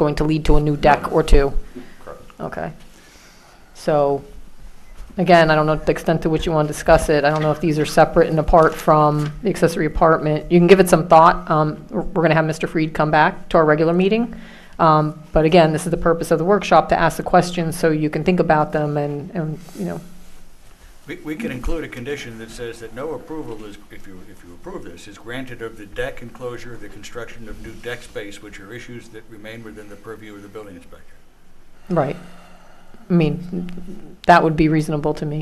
going to lead to a new deck or two? Correct. Okay. So, again, I don't know the extent to which you want to discuss it. I don't know if these are separate and apart from the accessory apartment. You can give it some thought. Um, We're going to have Mr. Freed come back to our regular meeting. Um, But again, this is the purpose of the workshop, to ask the questions so you can think about them and, and, you know, We, we can include a condition that says that no approval is, if you, if you approve this, is granted of the deck enclosure, the construction of new deck space, which are issues that remain within the purview of the building inspector. Right. I mean, that would be reasonable to me.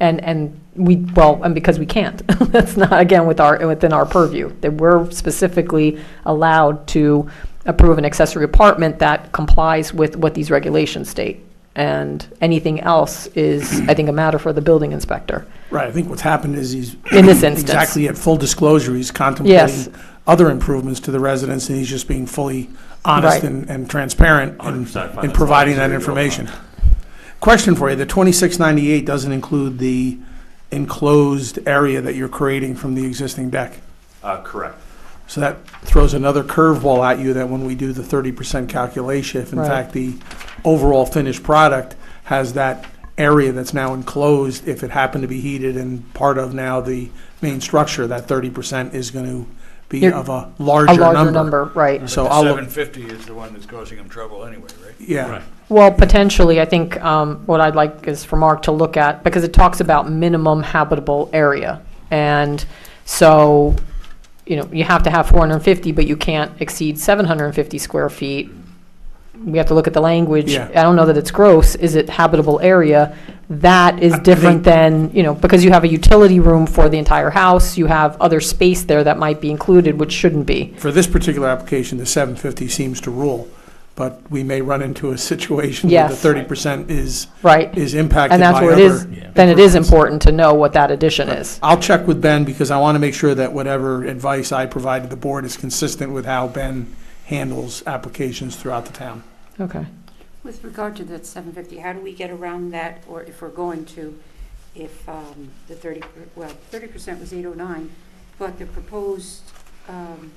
And, and we, well, and because we can't. That's not, again, with our, within our purview, that we're specifically allowed to approve an accessory apartment that complies with what these regulations state. And anything else is, I think, a matter for the building inspector. Right, I think what's happened is he's. In this instance. Exactly, at full disclosure, he's Yes. contemplating other improvements to the residents, and he's just being fully honest Right. and, and transparent in, 100% fine, in that's providing fine, that it's really information. Question for you, the twenty-six ninety-eight doesn't include the enclosed area that you're creating from the existing deck. Uh, correct. So that throws another curveball at you that when we do the thirty percent calculation, if in Right. fact the overall finished product has that area that's now enclosed, if it happened to be heated and part of now the main structure, that thirty percent is gonna be You're- of a A larger number. larger number, right. So The I'll, seven look- fifty is the one that's causing them trouble anyway, right? yeah, Well, potentially, I think um, what I'd like is for Mark to look at, because it talks about minimum habitable area. And so, you know, you have to have 450, but you can't exceed 750 square feet. We have to look at the language. Yeah. I don't know that it's gross. Is it habitable area? That is I- I different think- than, you know, because you have a utility room for the entire house, you have other space there that might be included, which shouldn't be. for this particular application, the seven fifty seems to rule, but we may run into a situation where the Yes. thirty percent is, Right? is impacted And by that's other. where it is, then it is important to know what that addition But is. I'll check with Ben because I want to make sure that whatever advice I provide to the board is consistent with how Ben handles applications throughout the town. Okay. With regard to that 750, how do we get around that, or if we're going to, if um, the 30, per- well, 30% was 809, but the proposed um,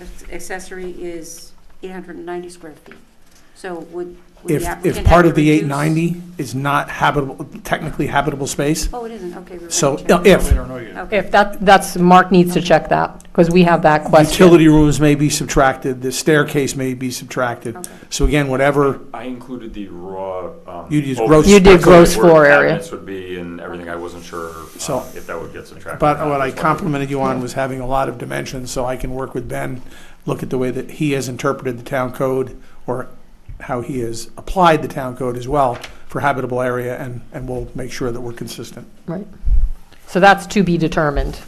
ac- accessory is 890 square feet? So would would If, the applicant if have part to of the reduce- 890 is not habitable, technically habitable space, Oh, it isn't, okay. we're so gonna check. We if don't know yet. Okay. If that, that's, Mark needs to check that, because we have that question. utility rooms may be subtracted, the staircase may be subtracted. Okay. So again, whatever, I included the raw. um, You just open gross- space, You did so gross where the floor area. cabinets would be and everything. I wasn't sure So- um, if that would get subtracted. but or not. what I That's why we- complimented you on was having a lot of dimensions, so I can work with Ben, look at the way that he has interpreted the town code or how he has applied the town code as well for habitable area, and, and we'll make sure that we're consistent. Right. So that's to be determined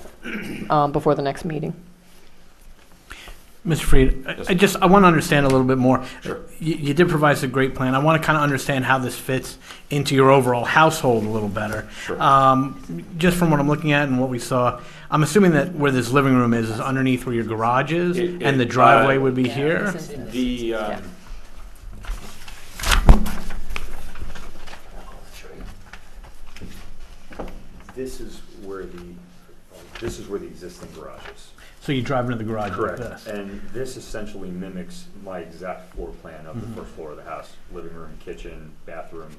um, before the next meeting. Mr. Freed, I- Yes. I just, I want to understand a little bit more. Sure. You, you did provide us a great plan. I want to kind of understand how this fits into your overall household a little better. Sure. Um, just from what I'm looking at and what we saw, I'm assuming that where this living room is, is underneath where your garage is, It- and the it, uh, driveway would be here? The, um, this is where the, this is where the existing garage is. So you drive into the garage Correct, like this? and this essentially mimics my exact floor plan of Mm-hmm. the first floor of the house, living room, kitchen, bathroom.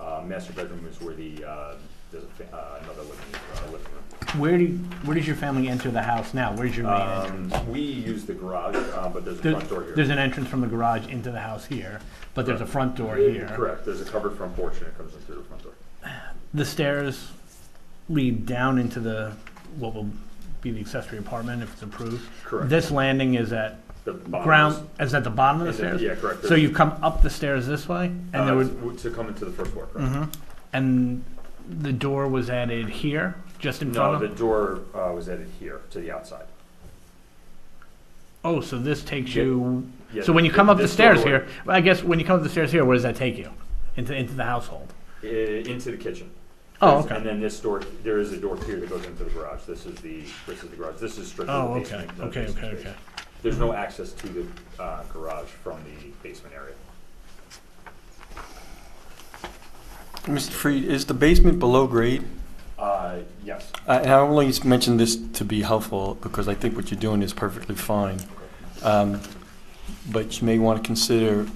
Uh, master bedroom is where the, uh, there's a, fa- uh, another living, uh, living room. Where do, you- where does your family enter the house now? Where's your main entrance? Um, we use the garage, uh, but there's a There- front door here. There's an entrance from the garage into the house here, but there's a front door Yeah, here. Correct, there's a covered front porch and it comes in through the front door. The stairs lead down into the, what will be the accessory apartment if it's approved. Correct. This landing is at The bottom ground, is at the bottom of the is- is it- stairs? Yeah, correct. So there's- you've come up the stairs this way, and uh, there would, To to come into the first floor, correct? Mhm. and the door was added here, just in No, front the of? door, uh, was added here to the outside. Oh, so this takes Yeah. you, Yeah, so when you th- come up the this stairs door here, well, I guess when you come up the stairs here, where does that take you? Into, into the household? i- Into the kitchen. Oh, There's- And okay. then this door, there is a door here that goes into the garage. This is the, this is the garage. This is strictly Oh, the okay, basement. no okay, basement okay, space. okay. There's no access to the uh, garage from the basement area. Mr. Freed, is the basement below grade? Uh, Yes. I- And I only mention this to be helpful because I think what you're doing is perfectly fine. Um, but you may want to consider